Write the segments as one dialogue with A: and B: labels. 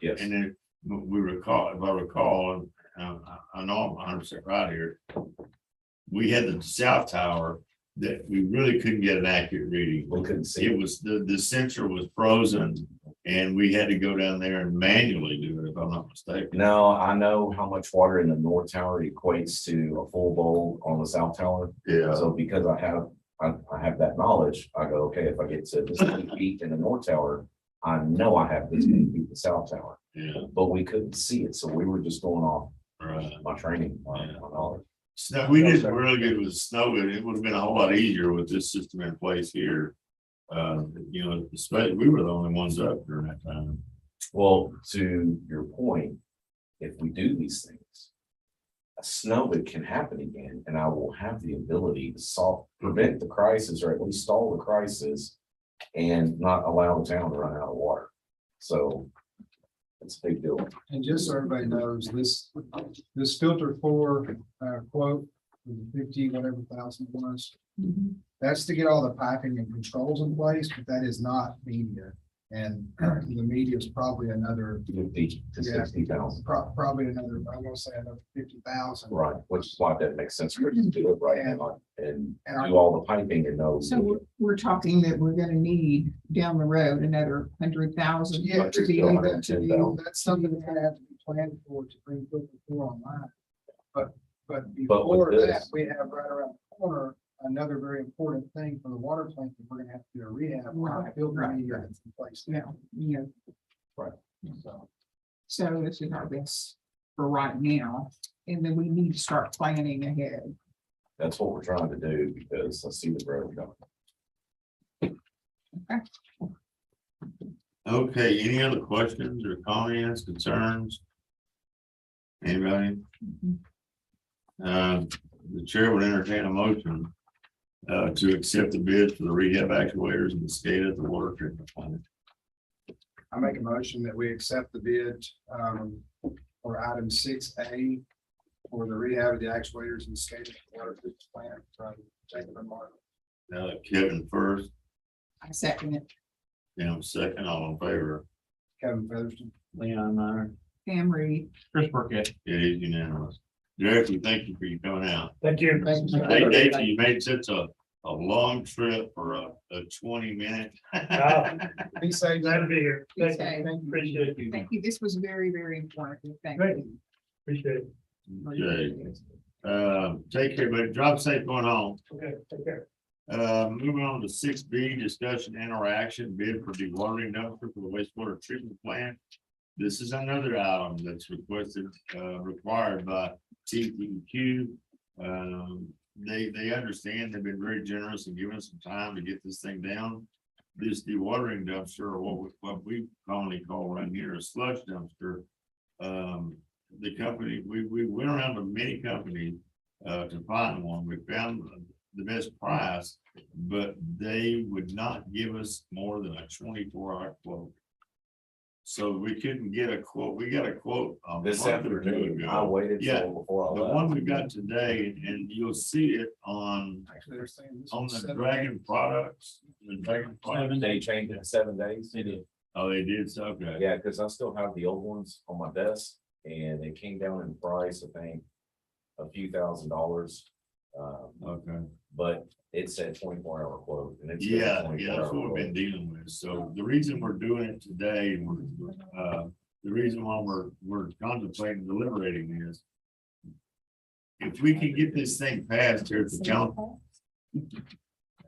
A: Yes.
B: And then we recall, if I recall, and um, I I know I'm hundred percent right here. We had the south tower that we really couldn't get an accurate reading.
A: We couldn't see.
B: It was, the, the sensor was frozen and we had to go down there and manually do it, if I'm not mistaken.
A: Now, I know how much water in the north tower equates to a full bowl on the south tower.
B: Yeah.
A: So because I have, I, I have that knowledge, I go, okay, if I get to this many feet in the north tower, I know I have this many feet in the south tower,
B: Yeah,
A: but we couldn't see it. So we were just going off uh,
B: right.
A: my training, my, my knowledge.
B: Snow, we did really good with the snow, but it would have been a whole lot easier with this system in place here. Uh, you know, especially, we were the only ones up during that time.
A: Well, to your point, if we do these things, a snow it can happen again, and I will have the ability to solve, prevent the crisis, or at least stall the crisis and not allow the town to run out of water. So it's a big deal.
C: And just so everybody knows, this, this filter four, uh, quote, fifty, whatever thousand it was. That's to get all the piping and controls in place, but that is not media. And the media is probably another,
A: Fifty to
C: Yeah.
A: sixty thousand,
C: pro- probably another, I want to say another fifty thousand.
A: right, which is why that makes sense for us to do it right now and
C: And our-
A: do all the piping and those.
D: So we're, we're talking that we're gonna need down the road another hundred thousand.
C: Yeah,
D: To be able to do,
C: that's something that's gonna have to be planned for to bring filter four online. But, but
A: But with
C: before that,
A: this-
C: we have right around the corner, another very important thing for the water plant that we're gonna have to do a rehab. on,
D: Right,
C: Filter
D: right,
C: media
D: right.
C: that's in place
D: yeah, you know,
C: now, so.
D: so this is our best for right now. And then we need to start planning ahead.
A: That's what we're trying to do because I see the road going.
B: Okay, any other questions or comments, concerns? Anybody? Uh, the chair would entertain a motion uh, to accept the bid for the rehab actuators in the state of the Uh, water treatment plant.
C: I make a motion that we accept the bid um for item six A for the rehab of the actuators and skating water treatment plant from Jacob and Martin.
B: Uh, Kevin first,
D: I second it.
B: Tim second, all in favor.
C: Kevin Featherston.
B: Leon, aye.
D: Pam Reed,
E: Chris Burkett.
B: It is unanimous. Derek, we thank you for you coming out.
E: Thank you.
C: Thank you, sir.
B: Hey, Dave, you made such a, a long trip for a, a twenty minute.
C: Be safe.
E: Ah. Glad to be here.
D: Be
E: Thank
D: safe.
E: you. Appreciate you.
D: thank you. This was very, very important. Thank
E: Great.
D: you.
E: Appreciate it.
B: Okay, uh, take care, but drive safe going home.
E: Okay, take care.
B: Uh, moving on to six B, discussion interaction bid for dewatering dumpster for the wastewater treatment plant. This is another item that's requested, uh, required by T P Q. Um, they, they understand, they've been very generous and giving us some time to get this thing down. This dewatering dumpster, or what we, what we commonly call around here a sludge dumpster. Um, the company, we, we went around to many companies, uh, to find one. We found the best price, but they would not give us more than a twenty-four hour quote. So we couldn't get a quote, we got a quote. a
A: This
B: month or two
A: afternoon,
B: ago.
A: I waited
B: Yeah,
A: till before I
B: The
A: left.
B: one we got today, and you'll see it on,
C: Actually, they're saying. this
B: on
C: was
B: the
C: seven
B: Dragon
C: days.
B: products, the Dragon products.
A: They changed it in seven days.
B: Oh, they did, so, okay.
A: Yeah, because I still have the old ones on my desk and they came down in price, I think, a few thousand dollars. Um,
B: Okay,
A: but it said twenty-four hour quote and it's.
B: yeah, yeah, that's what we've been dealing with, so the reason we're doing it today, and we're, uh, the reason why we're, we're contemplating deliberating is. If we can get this thing passed here at the council,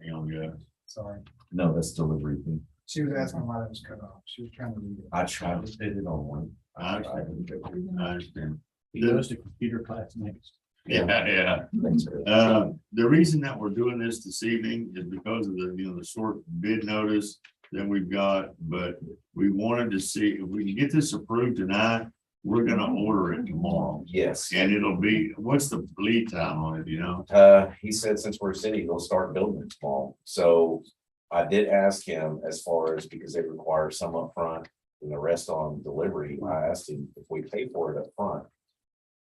B: hang on, guys.
C: Sorry,
A: No, that's delivery.
C: she was asking why that was cut off. She was trying to read it.
A: I tried to fit it on one.
B: I understand, I understand,
E: He goes to computer class next.
B: yeah, yeah.
A: Thanks, Chris.
B: Uh, the reason that we're doing this this evening is because of the, you know, the short bid notice that we've got, but we wanted to see if we can get this approved tonight, we're gonna order it tomorrow.
A: Yes.
B: And it'll be, what's the lead time on it, you know?
A: Uh, he said since we're a city, he'll start building it tomorrow. So I did ask him as far as, because they require some upfront and the rest on delivery. I asked him if we pay for it upfront.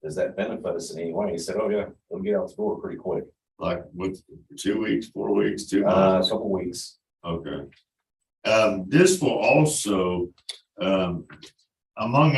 A: Does that benefit us in any way? He said, oh yeah, we'll get out the door pretty quick,
B: Like with two weeks, four weeks, two
A: uh, a
B: months?
A: couple weeks.
B: Okay. Um, this will also, um, among